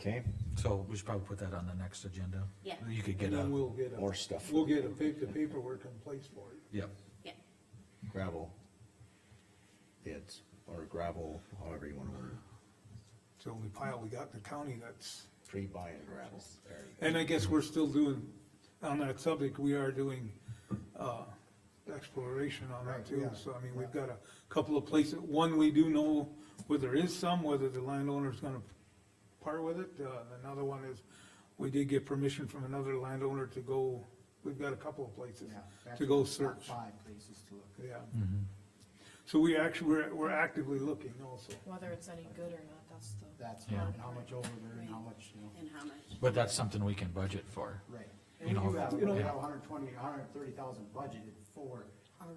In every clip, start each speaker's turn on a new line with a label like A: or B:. A: Okay,
B: So we should probably put that on the next agenda.
C: Yeah.
B: You could get
D: And
B: a,
D: then we'll get a.
A: more stuff.
D: We'll get a pa- the paperwork in place for it.
B: yeah,
C: yeah,
A: gravel bids, or gravel, however you wanna word it,
D: It's the only pile we got in the county that's,
A: pre-buying gravel. There you go.
D: and I guess we're still doing, on that subject, we are doing, uh, exploration on that too. So, I mean, we've got a couple of places, one, we do know whether there is some, whether the landowner's gonna part with it. Uh, another one is, we did get permission from another landowner to go, we've got a couple of places
E: Yeah, that's
D: to go
E: top
D: search,
E: Five places to look.
D: yeah. So we actually, we're, we're actively looking also.
F: Whether it's any good or not, that's the.
E: That's
B: Yeah.
E: and how much over there and how much, you know,
C: and how much?
B: but that's something we can budget for.
E: right.
B: You
E: And we
B: know,
E: do have, we
B: you know-
E: have hundred twenty, hundred thirty thousand budgeted for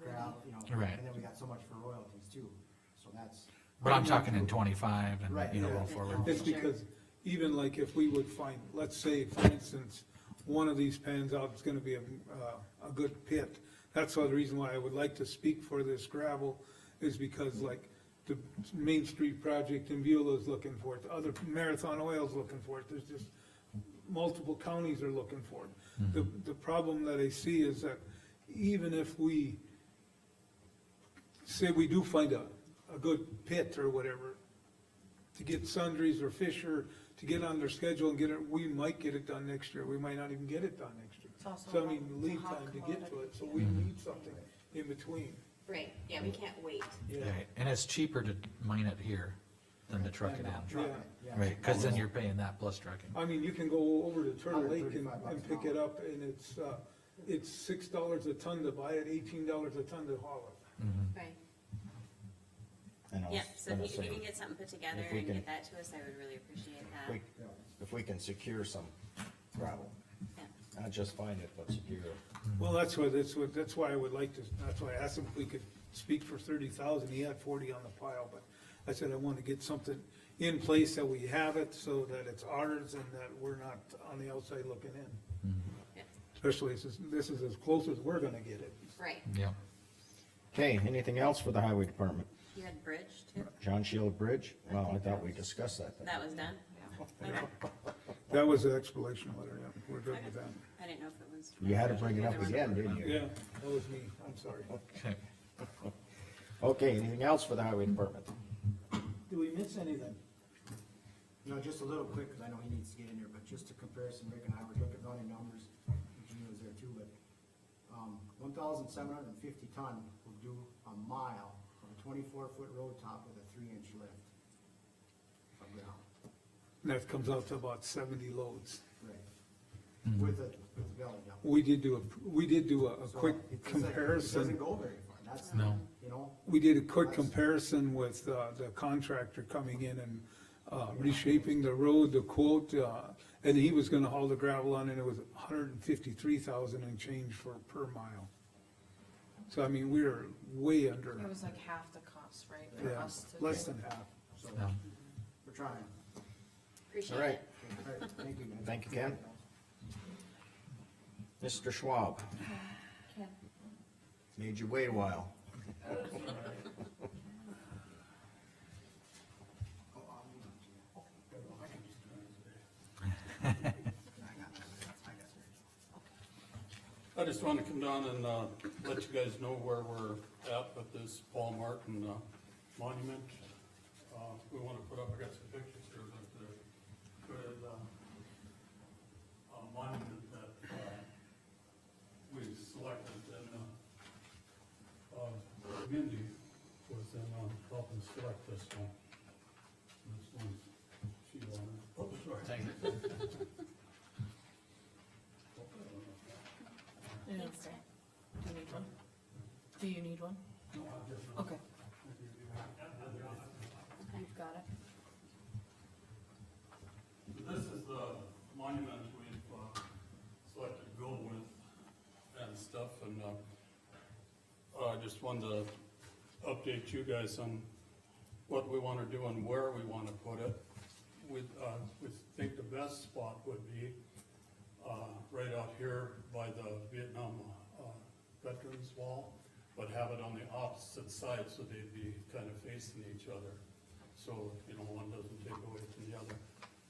E: ground, you know.
B: Right.
E: And then we got so much for royalties too, so that's.
B: But I'm talking in twenty-five and,
E: Right,
B: you know,
E: yeah.
B: go forward.
D: It's because even like if we would find, let's say, for instance, one of these pans out is gonna be a, uh, a good pit. That's the reason why I would like to speak for this gravel, is because like the Main Street project in Beulah is looking for it, the other Marathon Oil's looking for it, there's just multiple counties are looking for
B: Mm-hmm.
D: it. The, the problem that I see is that even if we say we do find a, a good pit or whatever, to get sundries or Fisher to get on their schedule and get it, we might get it done next year, we might not even get it done next year.
F: It's also
D: So I
F: a-
D: mean,
F: it's a
D: lead
F: hot
D: time to get to it,
F: commodity.
D: so we need something in between.
C: Right, yeah, we can't wait.
A: Mm-hmm.
B: Right, And it's cheaper to mine it here than to truck it in.
E: Truck
D: Yeah.
E: it, yeah.
B: Right, cause then you're paying that plus trucking.
D: I mean, you can go over to Turtle Lake and,
E: 135 bucks
D: and pick
E: an
D: it up, and it's, uh, it's six dollars a ton to buy it, eighteen dollars a ton to haul it.
C: Right.
A: And I was
C: Yeah, so
A: gonna
C: if you, if you
A: say,
C: can get something put together
A: if we
C: and
A: can-
C: get that to us, I would really appreciate
A: if
C: that.
A: we- If we can secure some gravel,
C: Yeah.
A: not just find it, but secure it.
D: Well, that's what, that's what, that's why I would like to, that's why I asked him if we could speak for thirty thousand, he had forty on the pile, but I said I wanna get something in place that we have it, so that it's ours and that we're not on the outside looking in.
C: Yeah,
D: Especially this is, this is as close as we're gonna get it.
C: Right,
B: Yeah.
A: Okay, anything else for the highway department?
C: you had bridge too?
A: John Shield Bridge? Well, I thought we discussed that. then.
C: That was done? Okay.
D: That was the explanation letter, yeah, we're good with that.
C: I didn't know if it was.
A: You had to bring it up
C: Either one.
A: again, didn't you?
D: Yeah, that was me, I'm sorry.
B: Okay.
A: Okay, anything else for the highway department?
D: Do we miss anything?
E: No, just a little quick, cause I know he needs to get in there, but just a comparison, Rick and I were looking, running numbers, Gina was there too, but, um, one thousand seven hundred and fifty ton will do a mile of a twenty-four foot road top with a three-inch lift of ground.
D: And that comes out to about seventy loads.
E: Right. With a, with a belly dump.
D: We did do a, we did do a, a
E: So
D: quick
E: it doesn't- It
D: comparison.
E: doesn't go very far, that's,
B: No.
E: you know,
D: We did a quick comparison with, uh, the contractor coming in and, uh, reshaping the road, the quote, uh, and he was gonna haul the gravel on and it was hundred and fifty-three thousand and change for, per mile. So I mean, we were way under,
F: It was like half the cost, right? for
D: yeah,
F: us to
D: less
F: do.
D: than half.
E: so,
B: Yeah.
E: we're trying.
C: Appreciate
A: All right,
C: it.
E: Okay, all right, Thank you, man.
A: Thank you, Ken. Mr. Schwab,
F: Ken,
A: made you wait a while.
G: I just want to come down and, uh, let you guys know where we're at with this Paul Martin, uh, monument. Uh, we want to put up, I got some pictures here, but the, good, uh, uh, monument that, uh, we selected and, uh, uh, Mindy was in, um, helping select this one. This one, she wanted. Oh, sorry.
F: you know, Do you need one? Do you need one? Okay. You've got it.
G: This is the monument we've uh, selected to go with and stuff, and uh, I just wanted to update you guys on what we want to do and where we want to put it. We, uh, we think the best spot would be uh, right out here by the Vietnam uh, Veterans Wall, but have it on the opposite side so they'd be kind of facing each other. So, you know, one doesn't take away from the other.